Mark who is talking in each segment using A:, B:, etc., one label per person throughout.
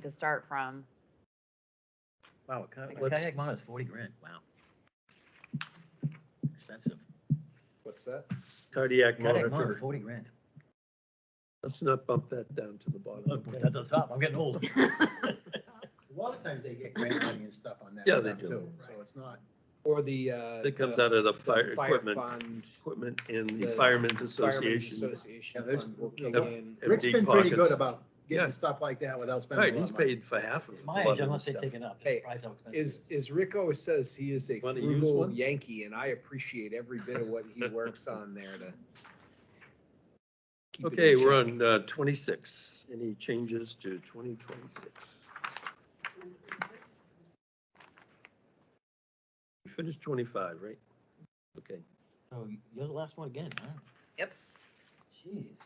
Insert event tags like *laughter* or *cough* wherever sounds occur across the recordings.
A: to start from.
B: Wow, a kayak, a
C: Let's-
B: kayak mono is forty grand, wow. Expensive.
D: What's that?
C: Cardiac
B: Kayak mono,
C: monitor.
B: forty grand.
C: Let's not bump that down to the bottom.
B: Look, at the top, I'm getting old.
D: A lot of times they get grant money and stuff on that
C: Yeah, they
D: stuff
C: do.
D: too, so it's not.
E: Or the, uh.
C: That comes
E: the-
C: out of the
E: the
C: fire equipment,
E: fund,
C: equipment and the
E: The
C: Firemen's
E: Firemen's
C: Association.
E: Association.
D: Yeah, there's-
E: fund will kick
C: Yep.
E: in.
C: have
D: Rick's
C: deep
D: been pretty
C: pockets.
D: good about
C: Yeah.
D: getting stuff like that without
C: Right,
D: spending a lot
C: he's
D: of money.
C: paid for half of it. a
B: My
C: lot
B: age,
C: of
B: unless
C: the
B: they
C: stuff.
B: take it up,
E: Hey,
B: just price how expensive.
E: Is, is Rick always says he is a
C: Wanna use
E: frugal
C: one?
E: Yankee and I appreciate every bit of what
C: *laughs*
E: he works on there to. keep it in
C: Okay, we're
E: check.
C: on uh, twenty-six. Any changes to twenty twenty-six? We finished twenty-five, right? Okay.
B: So you're the last one again, huh?
A: Yep.
B: Jeez.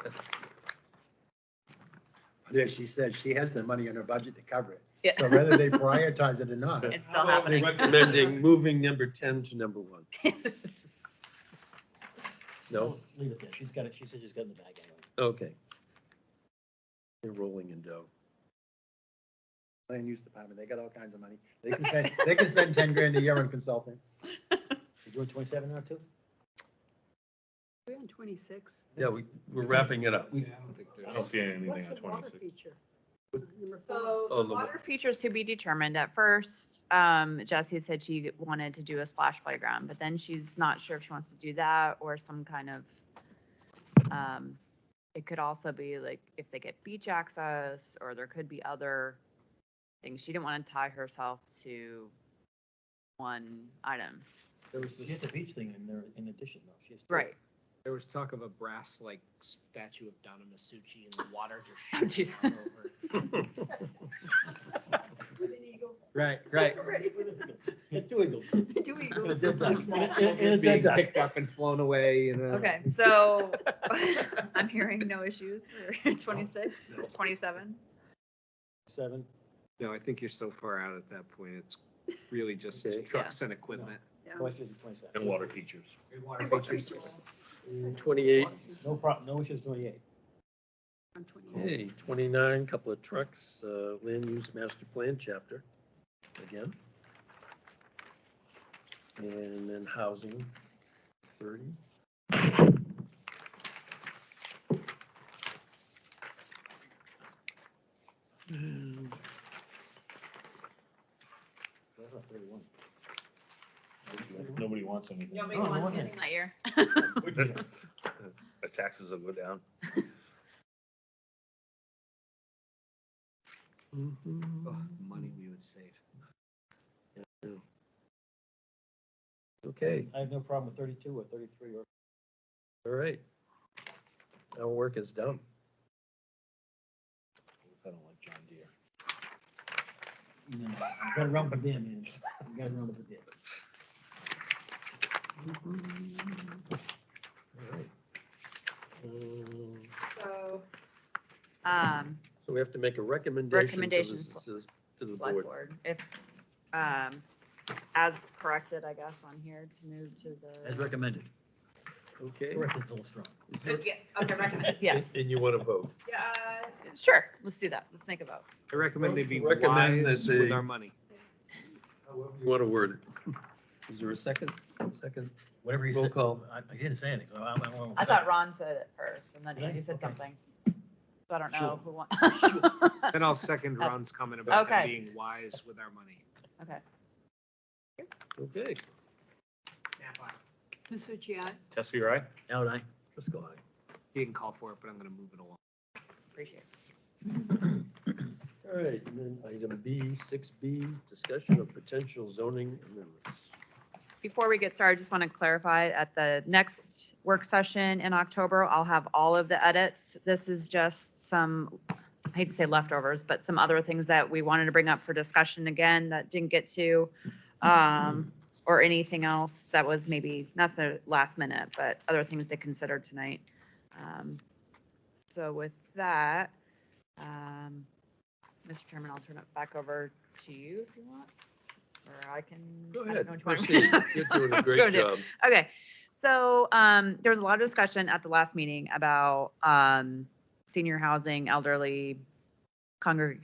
E: *laughs*
D: Yeah, she said she has the money in her budget to cover it.
A: Yeah.
D: So
A: *laughs*
D: whether they prioritize it or not,
A: It's still
C: They're
A: happening.
C: Recommending moving number ten to number one. No?
B: Leave it there, she's got it, she said she's got it in the bag anyway.
C: Okay. They're rolling in dough.
D: land use department, they got all kinds of money. They can spend, they can spend ten grand a year on consultants.
B: You doing twenty-seven now too?
F: We're on twenty-six.
C: Yeah, we, we're wrapping it up.
E: We- I don't think
G: I don't
E: there's.
G: see anything
F: What's
G: on
F: the water
G: twenty-six.
F: feature? Number four.
A: *laughs* So
C: Oh,
A: the
C: the
A: water features to be determined. At first, um, Jessie had said she wanted to do a splash playground, but then she's not sure if she wants to do that or some kind of, um, it could also be like if they get beach access or there could be other things. She didn't want to tie herself to one item.
E: There was
B: She has
E: this,
B: the beach thing in there in addition though, she's.
A: Right.
E: there was talk of a brass like statue of Donna Masucci in the water
A: Oh,
E: just *laughs*
A: jeez.
E: shooting all over.
F: With an eagle.
E: Right, right.
F: Ready for the
B: *laughs* Two eagles.
D: *laughs*
F: two eagles.
E: *laughs*
D: Did that.
B: and a dead
E: Being
B: duck.
E: picked up and flown away and. uh,
A: *laughs* Okay, so I'm hearing no issues for *laughs* 26, 27. Um,
B: Seven.
E: No, I think you're so far out at that point. It's really just
C: Okay.
E: trucks and equipment.
F: Yeah.
B: Questions in twenty-seven.
G: And water features.
E: Water
F: Water
E: features.
F: features.
C: Twenty-eight,
B: No prob, no issues twenty-eight.
F: On 28.
C: okay, twenty-nine, couple of trucks, uh, land use master plan chapter, again. And then housing, thirty. And
B: That's not thirty-one.
G: Nobody wants anything.
A: Nobody
B: Oh, no
A: wants
B: wonder.
A: anything that year.
G: The taxes will go down.
E: Oh, the Money we would save.
C: Okay,
B: I have no problem with thirty-two or thirty-three or.
C: all right. Our work is done.
G: I don't like John Deere.
B: You gotta run with them, man. You gotta run with the dam.
C: All right. Um,
A: *laughs* So. Um,
C: So we have to make a recommendation to
A: Recommendation,
C: the- to the, to the
A: select
C: board.
A: board, if, um, as corrected, I guess, on here to move to
B: As
A: the.
B: recommended.
C: Okay.
B: Corrected's a little strong.
C: Is there-
A: Yes, Oh, okay, recommend, yes,
C: And you want to vote?
A: yeah, uh, sure, let's do that, let's make a vote.
E: I recommend they be
C: Recommend that
E: wise
C: they-
E: with our money.
C: You want to word it? *laughs* Is there a second? Second?
B: Whatever
C: Roll call.
G: I, I didn't say anything, so I, I won't.
A: I thought Ron said it first, and then
B: Yeah,
A: Andy said
B: okay.
A: something. So I don't know
B: Sure.
A: who *laughs* won.
E: Then I'll second Ron's comment about them
A: Okay.
E: being wise with our money.
A: Okay,
C: Okay.
F: Masucci, aye.
G: Tessie, right?
C: Out I. Driscoll, aye.
E: He can call for it, but I'm gonna move it along.
A: appreciate it.
C: All right, and then item B, six B, discussion of potential zoning amendments.
A: Before we get started, I just want to clarify, at the next work session in October, I'll have all of the edits. This is just some, I hate to say leftovers, but some other things that we wanted to bring up for discussion again that didn't get to. um, Or anything else that was maybe, not so last minute, but other things to consider tonight. Um, So with that, um, Mr. Chairman, I'll turn it back over to you if you want, or I can.
C: Go
A: I don't
C: ahead,
A: know which one.
C: proceed.
A: *laughs*
C: You're doing a
A: Go
C: great
A: ahead.
C: job.
A: Okay, so um, there was a lot of discussion at the last meeting about um, senior housing, elderly, congregate